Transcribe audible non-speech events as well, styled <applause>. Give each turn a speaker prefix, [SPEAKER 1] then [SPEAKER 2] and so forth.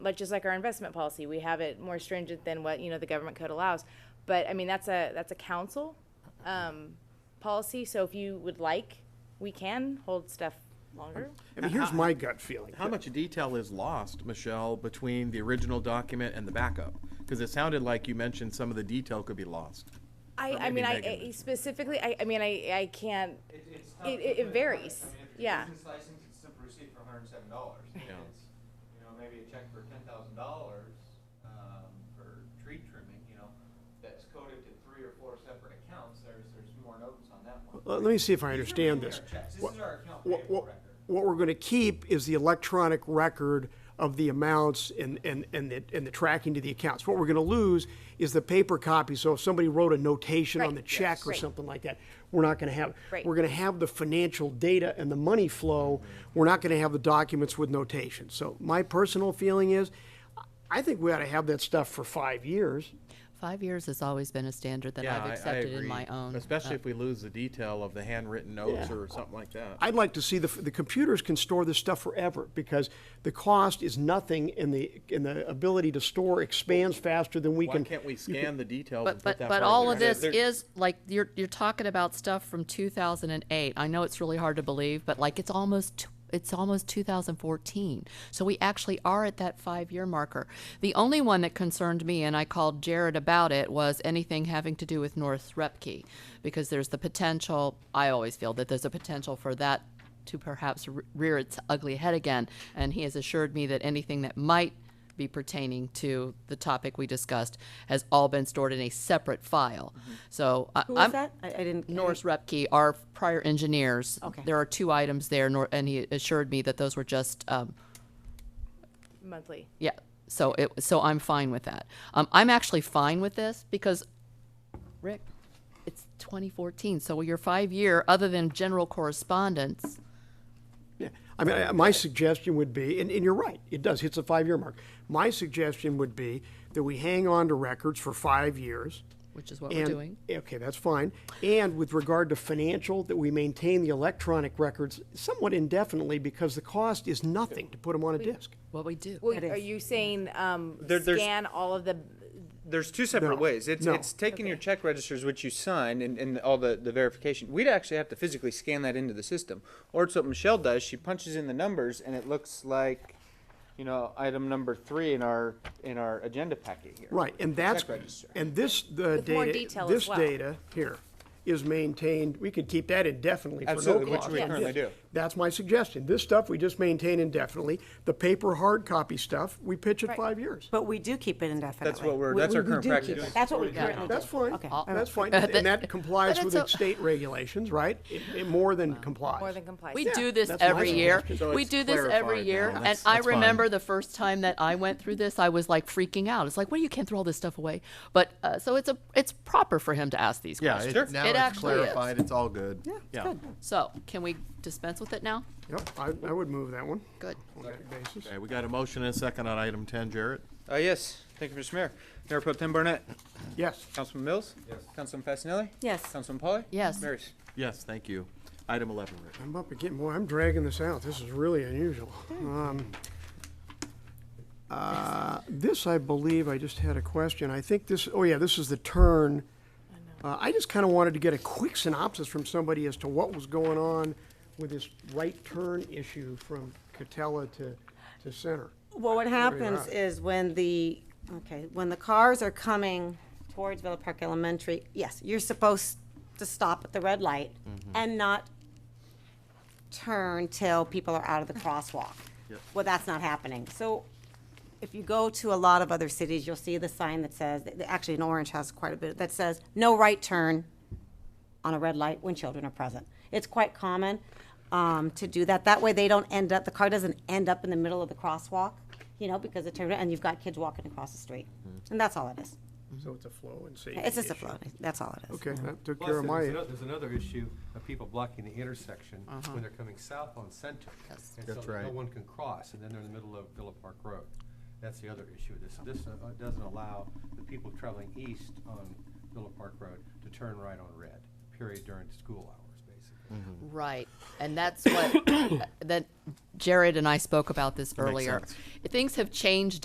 [SPEAKER 1] but just like our investment policy, we have it more stringent than what, you know, the government code allows. But, I mean, that's a, that's a council, um, policy, so if you would like, we can hold stuff longer.
[SPEAKER 2] I mean, here's my gut feeling.
[SPEAKER 3] Uh, How much detail is lost, Michelle, between the original document and the backup? Because it sounded like you mentioned some of the detail could be lost.
[SPEAKER 1] I,
[SPEAKER 3] Or
[SPEAKER 1] I mean,
[SPEAKER 3] maybe
[SPEAKER 1] I,
[SPEAKER 3] Megan.
[SPEAKER 1] I- specifically, I, I mean, I, I can't,
[SPEAKER 4] It, it's tough
[SPEAKER 1] It-
[SPEAKER 4] to
[SPEAKER 1] it- it
[SPEAKER 4] put a
[SPEAKER 1] varies.
[SPEAKER 4] price. I mean, if you're
[SPEAKER 1] Yeah.
[SPEAKER 4] business license, it's simple receipt for hundred and seven dollars.
[SPEAKER 3] Yeah.
[SPEAKER 4] You know, maybe a check for ten thousand dollars, um, for tree trimming, you know, that's coded to three or four separate accounts, there's, there's more notes on that one.
[SPEAKER 2] Let let me see if
[SPEAKER 4] These
[SPEAKER 2] I
[SPEAKER 4] are
[SPEAKER 2] understand
[SPEAKER 4] really
[SPEAKER 2] this.
[SPEAKER 4] our checks. This
[SPEAKER 2] What-
[SPEAKER 4] is our account
[SPEAKER 2] what-
[SPEAKER 4] payable
[SPEAKER 2] what-
[SPEAKER 4] record.
[SPEAKER 2] What we're going to keep is the electronic record of the amounts and, and, and the, and the tracking to the accounts. What we're going to lose is the paper copy, so if somebody wrote a notation on
[SPEAKER 1] Right,
[SPEAKER 2] the check or
[SPEAKER 1] yes.
[SPEAKER 2] something like that, we're not going to have.
[SPEAKER 1] Right.
[SPEAKER 2] We're going to have the financial data and the money flow, we're not going to have the documents with notations. So my personal feeling is, I- I think we ought to have that stuff for five years.
[SPEAKER 5] Five years has always been a standard that
[SPEAKER 3] Yeah, I- I
[SPEAKER 5] I've accepted
[SPEAKER 3] agree.
[SPEAKER 5] in my own. uh,
[SPEAKER 3] Especially if we lose the detail of the handwritten notes
[SPEAKER 2] Yeah.
[SPEAKER 3] or something like that.
[SPEAKER 2] I'd like to see the, the computers can store this stuff forever because the cost is nothing and the, and the ability to store expands faster than we
[SPEAKER 3] Why
[SPEAKER 2] can.
[SPEAKER 3] can't we scan the details and put
[SPEAKER 5] But, but,
[SPEAKER 3] that?
[SPEAKER 5] but
[SPEAKER 3] part
[SPEAKER 5] all
[SPEAKER 3] in
[SPEAKER 5] of
[SPEAKER 3] there?
[SPEAKER 5] this is, like, you're, you're talking about stuff from two thousand and eight. I know it's really hard to believe, but like, it's almost, t- it's almost two thousand fourteen. So we actually are at that five-year marker. The only one that concerned me, and I called Jared about it, was anything having to do with North Repke. Because there's the potential, I always feel that there's a potential for that to perhaps re- rear its ugly head again. And he has assured me that anything that might be pertaining to the topic we discussed has all been stored in a separate file. So I-
[SPEAKER 6] Mm-hmm. Who
[SPEAKER 5] I'm
[SPEAKER 6] was that? I, I didn't. I
[SPEAKER 5] Norris Repke, our prior engineers.
[SPEAKER 6] Okay.
[SPEAKER 5] There are two items there, nor- and he assured me that those were just um,
[SPEAKER 1] monthly.
[SPEAKER 5] yeah. So it so I'm fine with that. Um, I'm actually fine with this because Rick, it's 2014. So your five year, other than general correspondence,
[SPEAKER 2] Yeah. I mean, I- my suggestion would be, and, and you're right, it does, hits a five-year mark. My suggestion would be that we hang on to records for five years.
[SPEAKER 5] which is what
[SPEAKER 2] and-
[SPEAKER 5] we're doing.
[SPEAKER 2] Okay, that's fine. And with regard to financial, that we maintain the electronic records somewhat indefinitely because the cost is nothing to put them on a disk.
[SPEAKER 5] What we do.
[SPEAKER 1] Well,
[SPEAKER 6] That
[SPEAKER 1] are
[SPEAKER 6] is-
[SPEAKER 1] you saying, um,
[SPEAKER 7] There- there's-
[SPEAKER 1] scan all of the,
[SPEAKER 7] There's two separate
[SPEAKER 2] No.
[SPEAKER 7] ways. It's,
[SPEAKER 2] No.
[SPEAKER 7] it's taking your check registers, which you sign, and, and all the, the verification. We'd actually have to physically scan that into the system. Or it's what Michelle does. She punches in the numbers, and it looks like, you know, item number three in our in our agenda packet here.
[SPEAKER 2] Right, and that's,
[SPEAKER 7] Check register.
[SPEAKER 2] and this, the
[SPEAKER 1] With more
[SPEAKER 2] data,
[SPEAKER 1] detail
[SPEAKER 2] this
[SPEAKER 1] as well.
[SPEAKER 2] data here is maintained, we could keep that indefinitely for no
[SPEAKER 7] Absolutely, which
[SPEAKER 2] cost.
[SPEAKER 7] we currently do.
[SPEAKER 2] That's my suggestion. This stuff, we just maintain indefinitely. The paper hard copy stuff, we pitch at five years.
[SPEAKER 6] But we do keep it indefinitely.
[SPEAKER 7] That's what we're. That's our current practice.
[SPEAKER 6] That's what we currently do.
[SPEAKER 2] That's fine,
[SPEAKER 6] Okay.
[SPEAKER 1] <laughs>
[SPEAKER 2] that's fine, and that complies
[SPEAKER 5] But
[SPEAKER 2] with
[SPEAKER 5] it's
[SPEAKER 2] the
[SPEAKER 5] a-
[SPEAKER 2] state regulations, right? It- it more than complies.
[SPEAKER 1] more than complies?
[SPEAKER 5] We do this
[SPEAKER 2] that's my
[SPEAKER 5] every year.
[SPEAKER 2] suggestion.
[SPEAKER 3] So
[SPEAKER 5] We
[SPEAKER 3] it's
[SPEAKER 5] do this every
[SPEAKER 3] clarified
[SPEAKER 5] year.
[SPEAKER 3] now.
[SPEAKER 5] And
[SPEAKER 3] That's-
[SPEAKER 5] I
[SPEAKER 3] that's fine.
[SPEAKER 5] remember the first time that I went through this, I was like freaking out. It's like, well, you can't throw all this stuff away. But, uh, so it's a, it's proper for him to ask these
[SPEAKER 3] Yeah,
[SPEAKER 5] questions.
[SPEAKER 3] it- now
[SPEAKER 5] It
[SPEAKER 3] it's
[SPEAKER 5] actually is.
[SPEAKER 3] clarified, it's all good. Yeah.
[SPEAKER 5] So can we dispense with it now?
[SPEAKER 2] Yep, I, I would move that one.
[SPEAKER 5] Good.
[SPEAKER 3] Mm.
[SPEAKER 2] on that basis.
[SPEAKER 3] Okay, we got a motion and a second on item ten, Jarrett.
[SPEAKER 7] Uh, yes. Thank you, Mr. Mayor. Mayor Pro Tem Barnett.
[SPEAKER 2] Yes,
[SPEAKER 7] Councilman Mills. Yes. Councilman Fascinelli.
[SPEAKER 6] Yes.
[SPEAKER 7] Councilman Polly.
[SPEAKER 5] Yes.
[SPEAKER 7] Mayor's.
[SPEAKER 3] Yes, thank you. Item eleven, Rick.
[SPEAKER 2] I'm up again, boy, I'm dragging this out, this is really unusual. Um, uh, This, I believe, I just had a question, I think this, oh yeah, this is the turn. Uh, I just kind of wanted to get a quick synopsis from somebody as to what was going on with this right turn issue from Catella to, to Center.
[SPEAKER 6] Well, what happens
[SPEAKER 2] right.
[SPEAKER 6] is when the, okay, when the cars are coming towards Villa Park Elementary, yes, you're supposed to stop at the red light and not turn till people are out of the crosswalk. Well, that's not happening. So if you go to a lot of other cities, you'll see the sign that says, th- actually in Orange has quite a bit, that says, no right turn on a red light when children are present. It's quite common um, to do that. That way they don't end up, the car doesn't end up in the middle of the crosswalk, you know, because it turned, and you've got kids walking across the street. And that's all it is.
[SPEAKER 2] So it's a flow and safety
[SPEAKER 6] It's just a
[SPEAKER 2] issue.
[SPEAKER 6] flow, that's all it is.
[SPEAKER 2] Okay, that took
[SPEAKER 8] Plus,
[SPEAKER 2] care of
[SPEAKER 8] there's
[SPEAKER 2] my,
[SPEAKER 8] ano- There's another issue of people blocking the intersection when they're coming south on Center.
[SPEAKER 5] Yes.
[SPEAKER 8] and
[SPEAKER 3] That's
[SPEAKER 8] so
[SPEAKER 3] right.
[SPEAKER 8] No one can cross, and then they're in the middle of Villa Park Road. That's the other issue. This, this uh, uh, doesn't allow the people traveling east on Villa Park Road to turn right on red, period, during school hours, basically.
[SPEAKER 5] Right. And <coughs> that's what, that Jared and I spoke about this earlier.
[SPEAKER 3] sense.
[SPEAKER 5] Things have changed